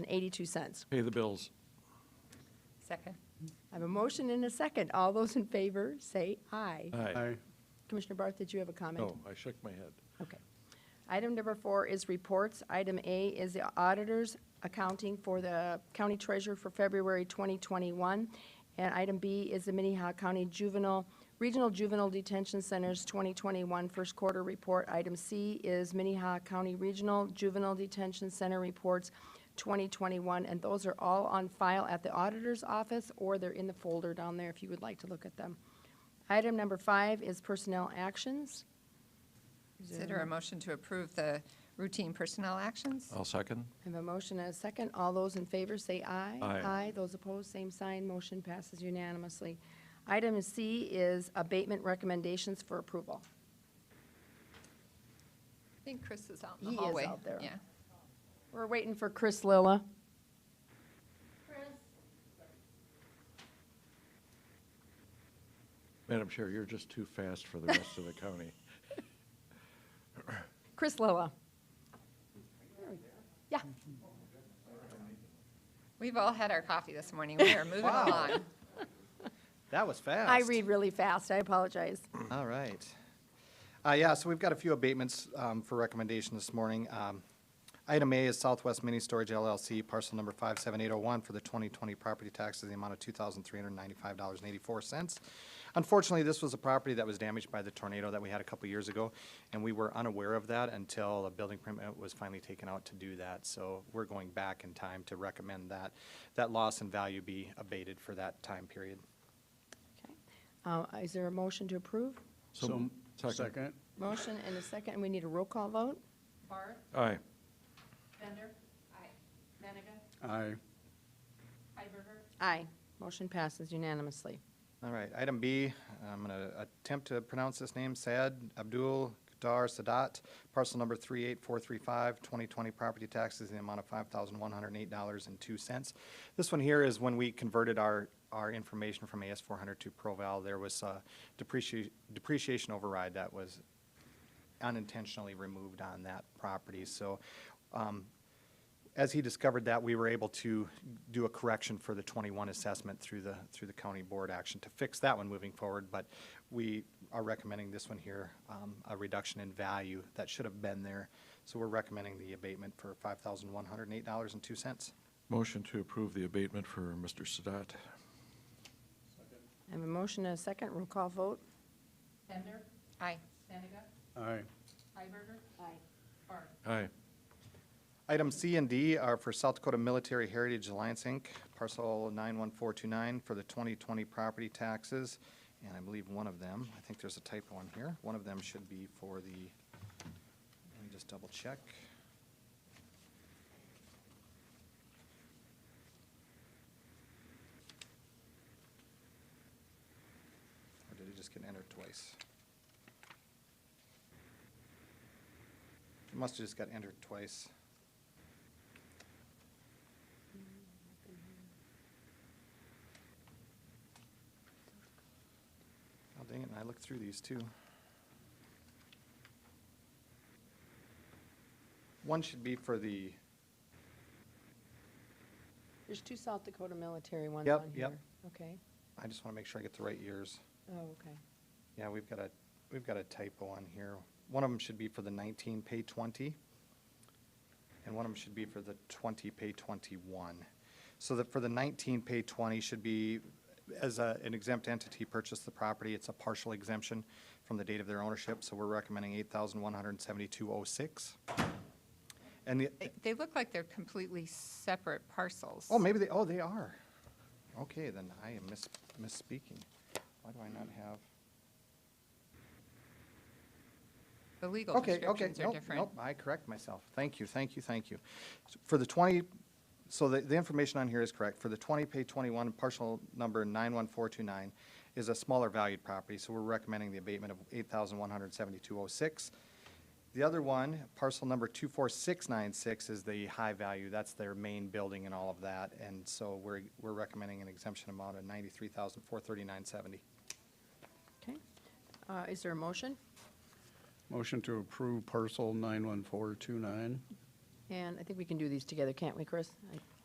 eighty-two cents. Pay the bills. Second. I have a motion and a second. All those in favor, say aye. Aye. Commissioner Barth, did you have a comment? No, Oh, I shook my head. Okay. Item number four is reports. Item A is the auditor's accounting for the county treasurer for February 2021. And item B is the Minnehaha County Juvenile, Regional Juvenile Detention Center's 2021 first quarter report. Item C is Minnehaha County Regional Juvenile Detention Center reports 2021. And those are all on file at the auditor's office, or they're in the folder down there if you would like to look at them. Item number five is personnel actions. Consider a motion to approve the routine personnel Oh. actions? I'll second. I have a motion and a second. All those in favor say aye. Aye. Those opposed, same sign. Motion passes unanimously. Item C is abatement recommendations for approval. I think Chris is out in in the He the is hallway. hallway. out there. Yeah. We're waiting for Chris Lilla. Madam Chair, you're just too fast for the rest of the county. Chris Lilla. Yeah, We've all had our coffee this morning. We are moving Wow. along. That was fast. I read really fast. I apologize. All right. Uh, yeah, so we've got a few abatements, um, for recommendation this morning. Um, item A is Southwest Mini Storage LLC, parcel number five seven eight oh one for the twenty twenty property taxes in the amount of two thousand three hundred ninety-five dollars and eighty-four cents. Unfortunately, this was a property that was damaged by the tornado that we had a couple years ago, and we were unaware of that until a building permit was finally taken out to do that. So we're going back in time to recommend that, that loss in value be abated for that time period. Okay. Uh, Is there a motion to approve? So, second. Second. Motion and a second, and we need a roll call vote? Barth, Aye. Bender. Aye. Benega. Aye. Hiberger. Aye. Motion passes unanimously. All right, item B, I'm going to attempt to pronounce this name, Saad Abdul Qatar Sadat, parcel number 38435, 2020 property taxes in the amount of $5,108.02. This one here is when we converted our, our information from AS400 to ProVal, there was a depreciation, depreciation override that was unintentionally removed on that property. So um, as he discovered that, we were able to do a correction for the 21 assessment through the, through the county board action to fix that one moving forward. But we are recommending this one here, um, a reduction in value that should have been there. So we're recommending the abatement for $5,108.02. Motion to approve the abatement for Mr. Sadat. I have a motion and a second, roll call vote? Bender. Aye. Benega. Aye. Hiberger. Aye. Barth. Aye. Item C and D are for South Dakota Military Heritage Alliance, Inc., parcel 91429 for the 2020 property taxes. And I believe one of them, I think there's a typo on here, one of them should be for the, let me just double check. Or did it just get entered twice? It must have just got entered twice. Oh, dang it, and I looked through these too. One should be for the, There's two South Dakota military ones Yep, on here. yep. Okay, I just want to make sure I get the right years. oh, okay. Yeah, we've got a, we've got a typo on here. One of them should be for the 19, pay 20, and one of them should be for the 20, pay 21. So that for the 19, pay 20 should be, as a- an exempt entity purchased the property, it's a partial exemption from the date of their ownership, so we're recommending 8172 oh And the, They- They look like they're completely separate parcels. oh, maybe they, oh, they are. Okay, then I am mis misspeaking. Why do I not have? The legal Okay, okay, descriptions are nope, different. nope, I correct myself. Thank you, thank you, thank you. S- For the 20, so the, the information on here is correct. For the 20, page 21, partial number 91429 is a smaller valued property, so we're recommending the abatement of 8172 oh The other one, parcel number 24696 is the high value, that's their main building and all of that. And so we're, we're recommending an exemption amount of 93,439.70. Okay. Uh, Is there a motion? Motion to approve parcel 91429. And I think we can do these together, can't we, Chris? I-